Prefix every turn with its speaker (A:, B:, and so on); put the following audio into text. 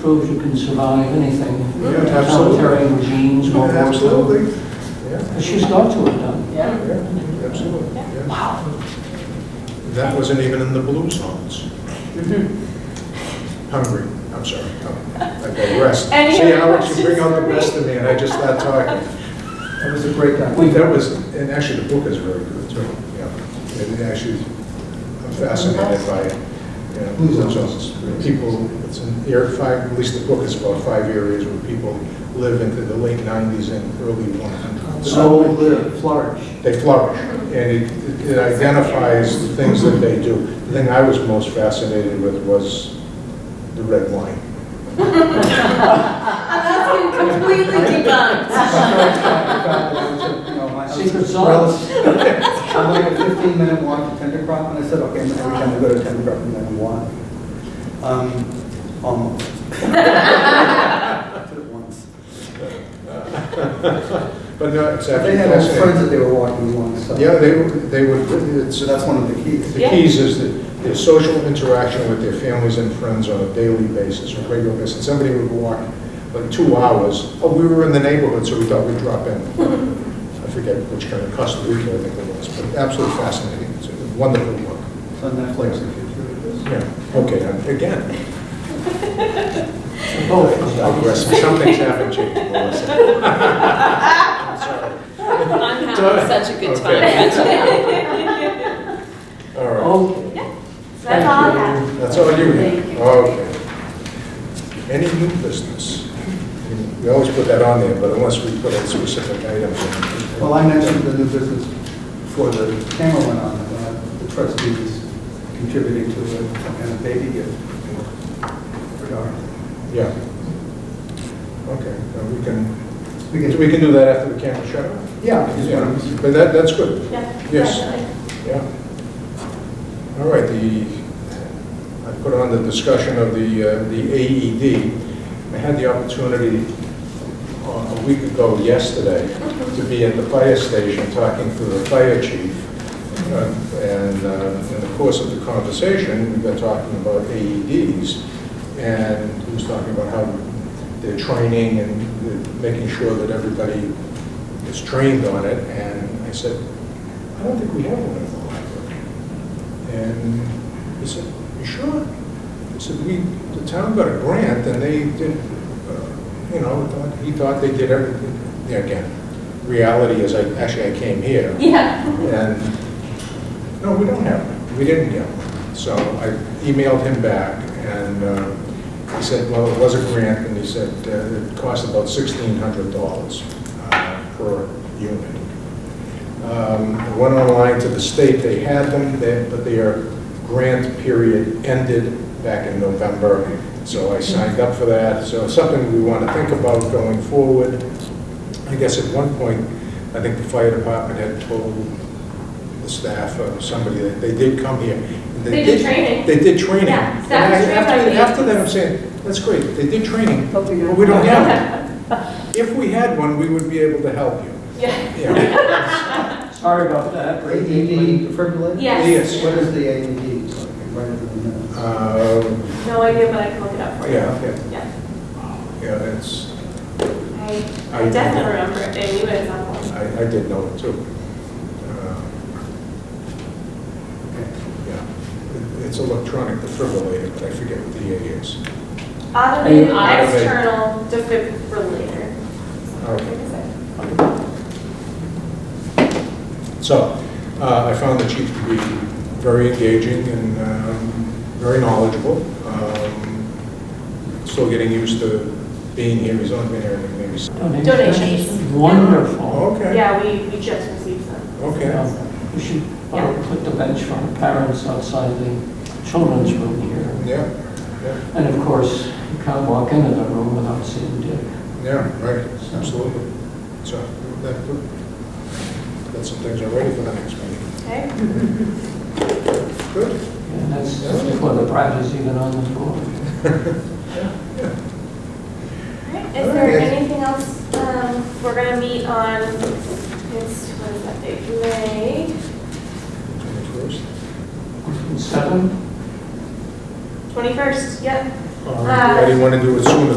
A: proves you can survive anything.
B: Yeah, absolutely.
A: Totalitarian regimes, World War II.
B: Absolutely. Yeah,
A: But she's got to have done.
C: Yeah.
B: yeah, absolutely. yeah.
A: Wow.
B: That wasn't even in the blues songs. Hungry, I'm sorry. Oh, I digressed.
C: Mm-hmm. Any
B: See,
C: other
B: I want you to
C: questions
B: bring out
C: for
B: the
C: me?
B: best in me, and I just start talking. That was a great time. That was, and actually, the book is very good, too. Yeah, And actually, I'm fascinated by, you know, blues songs. People, it's an, air five, at least the book is about five areas where people live into the late 90s and early 100s.
A: So live, flourish.
B: they flourish, and it- it identifies the things that they do. The thing I was most fascinated with was the red wine.
C: That's been completely debunked.
A: Secret
D: Secret
A: sauce.
D: sauce. I'm like a 15-minute walk to Tender Crop, and I said, okay, every time I go to Tender Crop, I'm going to walk. Um, Almost. I did it once.
B: But no, it's
D: But
B: actually...
D: They had old friends that
B: fascinating.
D: they were walking once, so.
B: Yeah, they, would- they would, it's, uh,
D: So that's one of the keys.
B: the keys is that their social interaction with their families and friends on a daily basis, or regular basis. Somebody would walk like two hours, oh, we were in the neighborhood, so we thought we'd drop in. I forget which kind of Costa Rica I think it was, but absolutely fascinating. It's a wonderful book.
D: It's on Netflix if you're curious.
B: Yeah, okay, now, again,
A: Both.
B: digress, some things haven't changed, Melissa.
E: I'm having such a good time.
B: All
A: Oh.
B: right,
A: Okay.
C: That's all I have.
B: that's all you
C: Thank
B: need,
C: you.
B: okay. Any new business? We always put that on there, but unless we put a specific item. in.
D: Well, I mentioned the new business before the camera went on, uh, the trustees contributing to a some kind of baby gift for Dorothy.
B: Yeah. Okay, now we can,
D: We can-
B: we can do that after the camera shut off?
D: Yeah, I just
B: Yeah,
D: wanted to-
B: But that, that's good.
C: Yeah.
B: Yes.
C: definitely.
B: Yeah. All right, the, I put on the discussion of the, uh, the AED. I had the opportunity uh, a week ago yesterday to be at the fire station talking to the fire chief. Uh, And uh, in the course of the conversation, we got talking about AEDs. And he was talking about how they're training and making sure that everybody is trained on it. And I said, I don't think we have one at the library. And he said, you sure? I said, we, the town got a grant and they did, uh, you know, thought- he thought they did everything. Yeah, again, reality is, I, actually, I came here
C: Yeah.
B: and, no, we don't have one. We didn't get one. So I emailed him back and uh, he said, well, it was a grant and he said uh, it cost about $1,600 uh, per unit. Um, I Went online to the state, they had them, they- but their grant period ended back in November, so I signed up for that. So it's something we want to think about going forward. I guess at one point, I think the fire department had told the staff or somebody that they did come here. and
C: They did training.
B: They did training.
C: Yeah,
B: And
C: staff was
B: I-
C: trained
B: after-
C: by me.
B: After that, I'm saying, that's great, they did training, but
F: But we don't
B: we don't have it. If we had one, we would be able to help you.
C: Yeah.
B: Yeah.
A: Sorry about that.
D: AED defibrillator?
C: Yes.
B: Yes.
D: What is the AED? So I can write it in the minutes.
B: Um,
C: No idea, but I can look it up for you.
B: Yeah, okay.
C: Yeah.
B: yeah, it's,
C: I
B: I-
C: I definitely remember it, and you guys have one.
B: I, I did know it too. Uh,
D: Okay.
B: Yeah, It- it's electronic defibrillator, but I forget what the A is.
C: Automated
B: Automated.
C: external defibrillator.
B: Okay. So, uh, I found the chief to be very engaging and um, very knowledgeable. Um, Still getting used to being here, he's only been here maybe. s-
C: Donations.
A: Wonderful.
B: Okay.
C: Yeah, we, we just received them.
B: Okay,
A: We should uh, put the bench for the parents outside the children's room here.
B: yeah, yeah.
A: And of course, you can't walk into the room without seeing Dick.
B: Yeah, right, absolutely. So, that, that's some things already for the next meeting.
C: Okay?
B: Good.
A: And that's that's before the pride is even on the board.
C: Alright, Is there anything else, um, we're gonna meet on, it's, what is that date, May?
B: Twenty-first.
A: Seven?
C: Twenty-first, yep.
B: Uh, I didn't want to do it sooner